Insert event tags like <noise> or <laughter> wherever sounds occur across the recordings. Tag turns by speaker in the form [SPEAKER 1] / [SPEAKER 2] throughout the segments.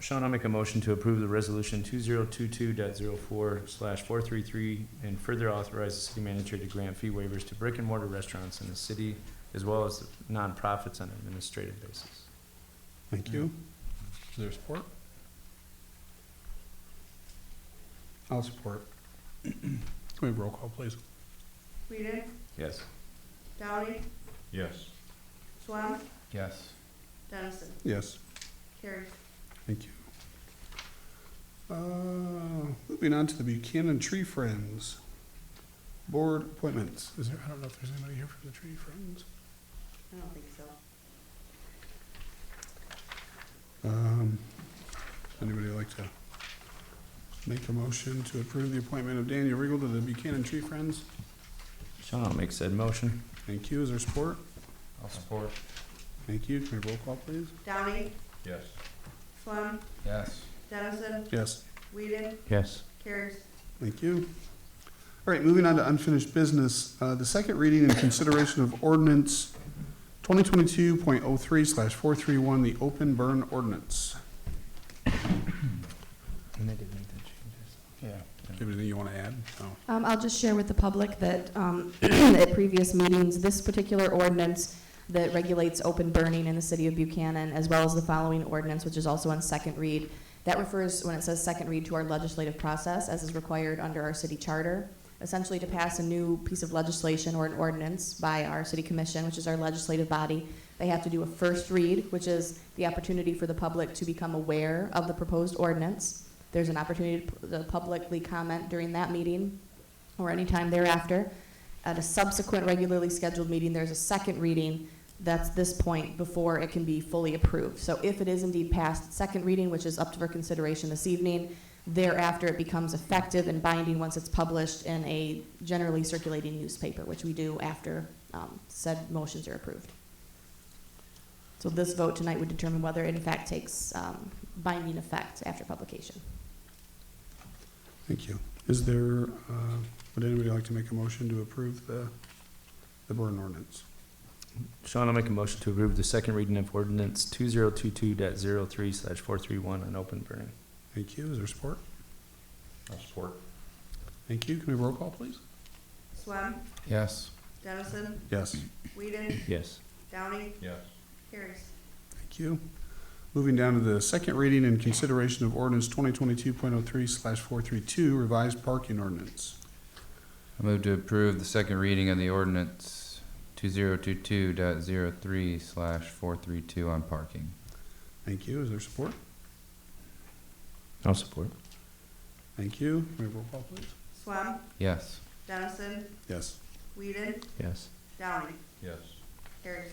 [SPEAKER 1] Sean, I'll make a motion to approve the resolution two zero two two dot zero four slash four three three and further authorize the city manager to grant fee waivers to brick and mortar restaurants in the city as well as nonprofits on an administrative basis.
[SPEAKER 2] Thank you. Is there support? I'll support. Can we have roll call, please?
[SPEAKER 3] Whedon,
[SPEAKER 1] Yes.
[SPEAKER 3] Downey,
[SPEAKER 4] Yes.
[SPEAKER 3] Swam,
[SPEAKER 4] Yes.
[SPEAKER 3] Dennison,
[SPEAKER 2] Yes,
[SPEAKER 3] carried.
[SPEAKER 2] thank you. Uh, Moving on to the Buchanan Tree Friends Board appointments. Is there, I don't know if there's anybody here from the Tree Friends.
[SPEAKER 3] I don't think so.
[SPEAKER 2] Um, Anybody like to make a motion to approve the appointment of Daniel Riggle to the Buchanan Tree Friends?
[SPEAKER 1] Sean, I'll make said motion.
[SPEAKER 2] Thank you. Is there support?
[SPEAKER 4] I'll support.
[SPEAKER 2] Thank you. Can we roll call, please?
[SPEAKER 3] Downey,
[SPEAKER 4] Yes.
[SPEAKER 3] Swam,
[SPEAKER 4] Yes.
[SPEAKER 3] Dennison,
[SPEAKER 2] Yes.
[SPEAKER 3] Whedon,
[SPEAKER 1] Yes.
[SPEAKER 3] carries.
[SPEAKER 2] Thank you. All right, moving on to unfinished business, uh, the second reading and consideration of ordinance twenty twenty-two point oh three slash four three one, the open burn ordinance.
[SPEAKER 1] And they did make the changes.
[SPEAKER 4] Yeah.
[SPEAKER 2] Anything you want to add? No.
[SPEAKER 5] Um, I'll just share with the public that, um, <clears throat> at previous meetings, this particular ordinance that regulates open burning in the city of Buchanan, as well as the following ordinance, which is also on second read, that refers, when it says second read, to our legislative process, as is required under our city charter, essentially to pass a new piece of legislation or an ordinance by our city commission, which is our legislative body. They have to do a first read, which is the opportunity for the public to become aware of the proposed ordinance. There's an opportunity to publicly comment during that meeting, or any time thereafter. At a subsequent regularly scheduled meeting, there's a second reading that's this point before it can be fully approved. So if it is indeed passed, at second reading, which is up for consideration this evening, thereafter it becomes effective and binding once it's published in a generally circulating newspaper, which we do after um, said motions are approved. So this vote tonight would determine whether it in fact takes um, binding effect after publication.
[SPEAKER 2] Thank you. Is there, uh, would anybody like to make a motion to approve the, the burn ordinance?
[SPEAKER 1] Sean, I'll make a motion to approve the second reading of ordinance two zero two two dot zero three slash four three one on open burning.
[SPEAKER 2] Thank you. Is there support?
[SPEAKER 4] I'll support.
[SPEAKER 2] Thank you. Can we have roll call, please?
[SPEAKER 3] Swam,
[SPEAKER 4] Yes.
[SPEAKER 3] Dennison,
[SPEAKER 2] Yes.
[SPEAKER 3] Whedon,
[SPEAKER 1] Yes.
[SPEAKER 3] Downey,
[SPEAKER 4] Yes.
[SPEAKER 3] carries.
[SPEAKER 2] Thank you. Moving down to the second reading and consideration of ordinance twenty twenty-two point oh three slash four three two, revised parking ordinance.
[SPEAKER 6] I move to approve the second reading of the ordinance two zero two two dot zero three slash four three two on parking.
[SPEAKER 2] Thank you. Is there support?
[SPEAKER 1] I'll support.
[SPEAKER 2] Thank you. May I have roll call, please?
[SPEAKER 3] Swam,
[SPEAKER 6] Yes.
[SPEAKER 3] Dennison,
[SPEAKER 2] Yes.
[SPEAKER 3] Whedon,
[SPEAKER 1] Yes.
[SPEAKER 3] Downey,
[SPEAKER 4] Yes.
[SPEAKER 3] carries.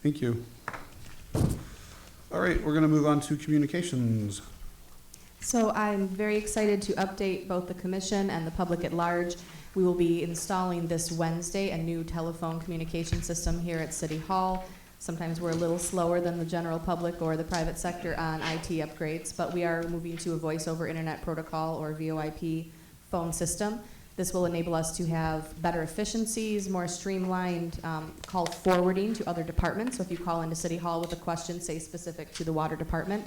[SPEAKER 2] Thank you. All right, we're gonna move on to communications.
[SPEAKER 5] So I'm very excited to update both the commission and the public at large. We will be installing this Wednesday a new telephone communication system here at City Hall. Sometimes we're a little slower than the general public or the private sector on IT upgrades, but we are moving to a voice over internet protocol or VoIP phone system. This will enable us to have better efficiencies, more streamlined um, call forwarding to other departments. So if you call into City Hall with a question, say specific to the water department,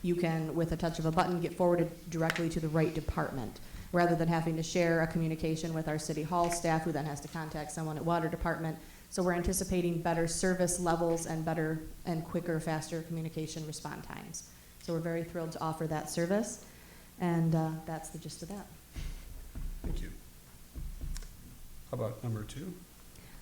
[SPEAKER 5] you can, with a touch of a button, get forwarded directly to the right department, rather than having to share a communication with our city hall staff, who then has to contact someone at water department. So we're anticipating better service levels and better and quicker, faster communication respond times. So we're very thrilled to offer that service, and uh, that's the gist of that.
[SPEAKER 2] Thank you. How about number two?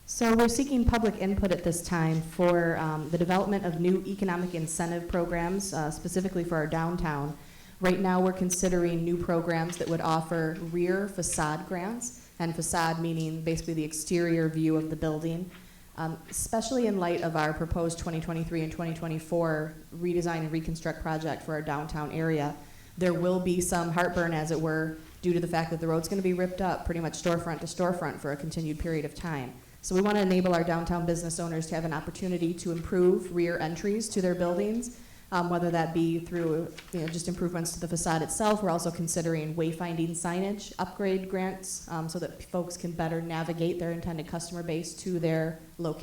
[SPEAKER 5] So we're seeking public input at this time for um, the development of new economic incentive programs, uh, specifically for our downtown. Right now, we're considering new programs that would offer rear facade grants, and facade meaning basically the exterior view of the building, um, especially in light of our proposed 2023 and 2024 redesign and reconstruct project for our downtown area. There will be some heartburn, as it were, due to the fact that the road's going to be ripped up pretty much storefront to storefront for a continued period of time. So we want to enable our downtown business owners to have an opportunity to improve rear entries to their buildings, um, whether that be through, you know, just improvements to the facade itself. We're also considering wayfinding signage, upgrade grants, um, so that folks can better navigate their intended customer base to their location.